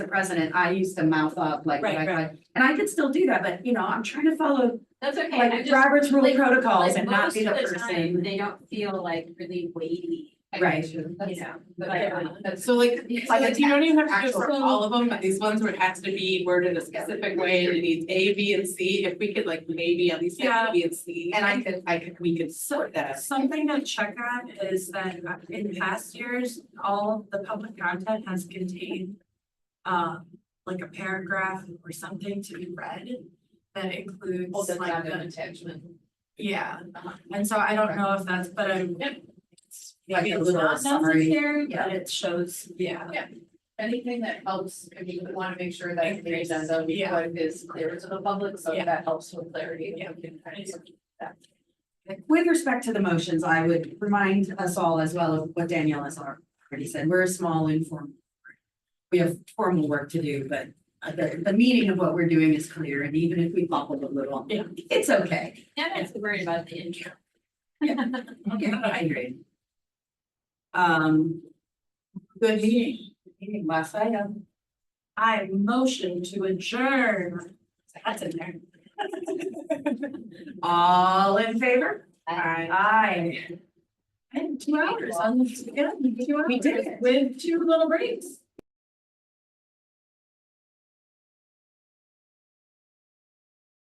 the president, I used to mouth up like, Right, like, right. like- and I could still do that, but you know, I'm trying to follow That's okay, I'm like just. Robert's rule like- protocols like, and not most be the of time, person. They don't feel like really weighty. Right. You That's- know, but, Right. um, So like, Yeah. so like, you don't even have to do Actual- it for all of them, but these ones where it has to be worded a specific way, and it needs A, B, and C, if we could like maybe at least Yeah. have A, B, and C. And I could, I could, We could sort that. Something to check on is that uh, in past years, all of the public content has contained. Um, like a paragraph or something to be read that includes Oh, that's like not an the, attachment. yeah. And so I don't know if that's, but I. like a It's little not summary. necessary, yeah. But it shows, yeah. Anything that helps, if you want to make sure that the Increase. agenda we Yeah. put is clear to the public, so Yeah. that helps with clarity. Yeah. With respect to the motions, I would remind us all as well of what Danielle has already said. We're a small informal. group. We have formal work to do, but uh, the, the meaning of what we're doing is clear, and even if we bobble a little, Yeah. it's okay. Yeah, that's worried about the intro. Okay, I agree. Um. Good meeting. Meeting last night, um, I motion to adjourn. That's in there. All in favor? Aye. Aye. And two hours on the, yeah, two hours. We did it. With two little breaks.